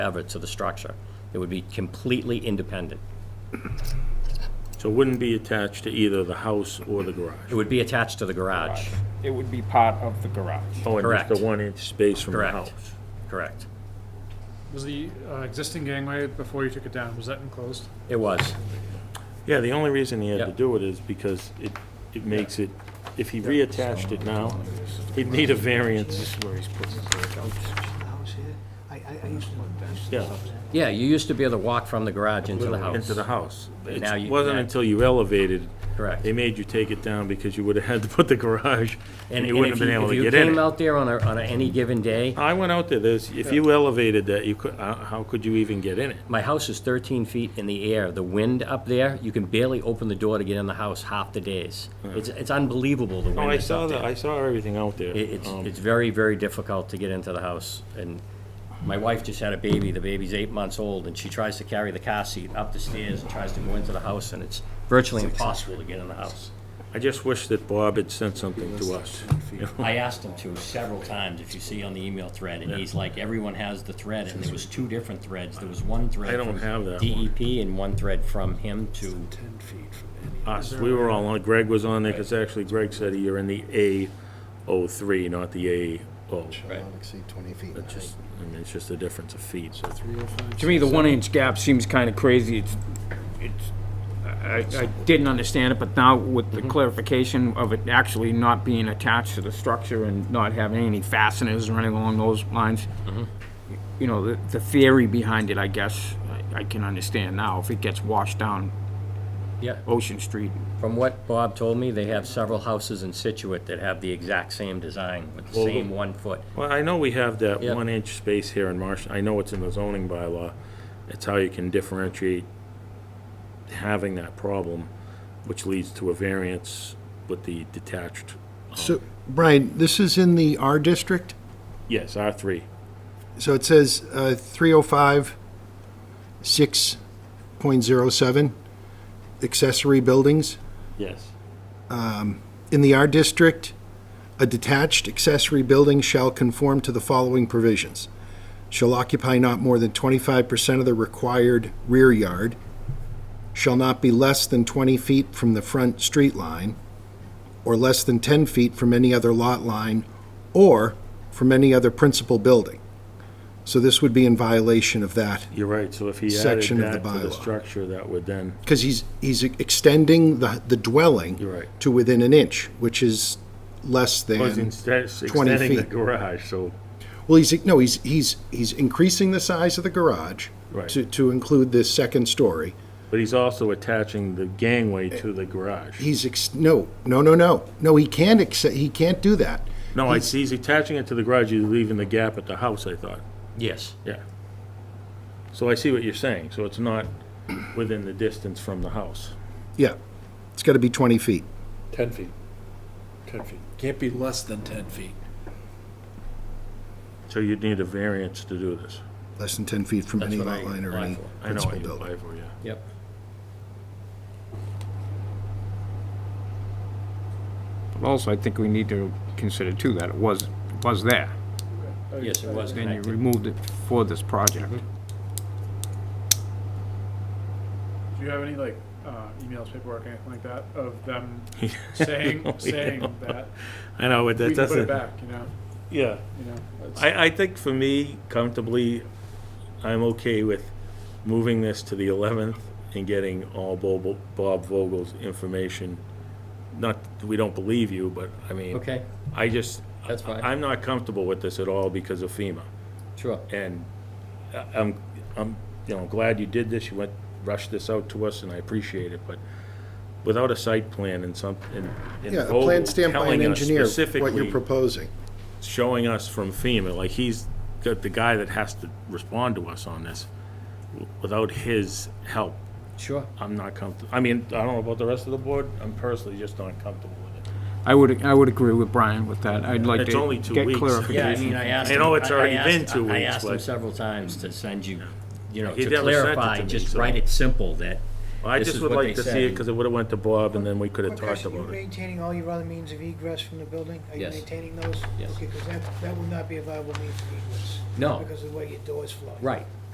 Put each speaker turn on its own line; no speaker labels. ever to the structure. It would be completely independent.
So it wouldn't be attached to either the house or the
It
garage?
would be attached to the garage.
It would be part of the garage.
Oh, and just
Correct.
the one-inch space from the
Correct.
house?
Correct.
Was the uh, existing gangway before you took it down, was that enclosed?
It was.
Yeah, the only reason he had to
Yep.
do it is because it, it makes it, if he reattached it now, he'd need a variance.
house here. I, I, I used to live there.
Yeah,
Yeah, you used to be able to walk from the garage into the house.
into the house.
Now you-
It wasn't
yeah.
until you elevated.
Correct.
They made you take it down because you would've had to put the garage, and you
and
wouldn't have
if
been able
if
to
you
get in
came
it.
out there on a, on a- any given day,
I went out there, there's, if you elevated that, you could, how, how could you even get in it?
my house is 13 feet in the air. The wind up there, you can barely open the door to get in the house half the days. It's, it's unbelievable, the
Oh,
wind
I
is
saw
up there.
that, I saw everything out there.
It- It's,
Um,
it's very, very difficult to get into the house, and my wife just had a baby, the baby's eight months old, and she tries to carry the car seat up the stairs and tries to go into the house, and it's virtually impossible to get in the house.
I just wish that Bob had sent something to us.
I asked him to several times, if you see on the email thread, and he's like, everyone has the thread, and there was two different threads, there was one thread
I don't
from
have that one.
E DEP and one thread from him to,
Us, we were all on, Greg was on there, because actually Greg said you're in the A 03, not the A O.
Right.
Not exceed 20 feet in height.
Just, I mean, it's just a difference of feet.
To me, the one inch gap seems kind of crazy. It's, it's, I, I didn't understand it, but now with the clarification of it actually not being attached to the structure and not having any fasteners or anything along those lines, you know, the, the theory behind it, I guess, I, I can understand now. If it gets washed down
yeah,
Ocean Street,
from what Bob told me, they have several houses in Situate that have the exact same design, with the
Well, the-
same one foot.
Well, I know we have that
Yeah.
one-inch space here in Marsh, I know it's in the zoning bylaw. It's how you can differentiate having that problem, which leads to a variance with the detached.
So, Brian, this is in the R district,
Yes, R3.
so it says uh, 305, 6.07, accessory buildings.
Yes.
In the R district, a detached accessory building shall conform to the following provisions. Shall occupy not more than 25% of the required rear yard, shall not be less than 20 feet from the front street line, or less than 10 feet from any other lot line, or from any other principal building. So this would be in violation of that,
You're right, so if he added
Section of the
that to the
bylaw.
structure, that would then,
because he's, he's extending the, the dwelling
You're right.
to within an inch, which is less than...
was instead extending
feet.
the garage, so.
Well, he's, no, he's, he's, he's increasing the size of the garage
Right.
to, to include this second story.
But he's also attaching the gangway to the garage.
He's, ex- no, no, no, no, no, he can't accept, he can't do that.
No, I see, he's attaching it to the garage, he's leaving the gap at the house, I thought.
Yes.
Yeah. So I see what you're saying, so it's not within the distance from the house.
Yeah, it's gotta be twenty feet.
10 feet. 10 feet. Can't be less than 10 feet.
So you'd need a variance to do this.
Less than ten feet from
That's
any
what
lot
I
line or
applied
any
for.
I know what
principal
you
building.
apply for, yeah.
Yep.
but also I think we need to consider too that it was, was there.
Yes, it was
Then you
connected.
removed it for this project.
Do you have any like uh, emails, paperwork, anything like that of them saying, saying that
I know, but
we
that
can put it
doesn't.
back, you know,
Yeah.
you know? it's-
I, I think for me, comfortably, I'm okay with moving this to the 11th and getting all Bob Bob Vogel's information. Not, we don't believe you, but I mean.
Okay,
I just.
That's fine.
I'm not comfortable with this at all because of FEMA.
sure.
And I- I'm, I'm, you know, glad you did this, you went, rushed this out to us, and I appreciate it, but without a site plan and some, and and
Yeah, a
Vogel
plan stamped by an
telling us
engineer, what you're
specifically,
proposing.
showing us from FEMA, like he's got the guy that has to respond to us on this. W- Without his help,
Sure.
I'm not comfortable, I mean, I don't know about the rest of the board, I'm personally just not comfortable with it.
I would, I would agree with Brian with that. I'd like to
It's only two
get
weeks.
clarification.
Yeah, I mean, I asked.
I know
him-
it's already
I
been
asked-
two
I
weeks,
asked him
but-
several times to send you, you know,
He
to
never sent it
clarify,
to me,
just
so-
write it simple that
I
This
just
is
would
what
like
they
to see
say.
it, because it would've went to Bob, and then we could've talked
Question, you
about it.
maintaining all your other means of egress from the building? Are you
Yes.
maintaining those?
Yes.
Okay, because that, that would not be a viable means of egress.
No.
Because of the way your doors flow.
Right,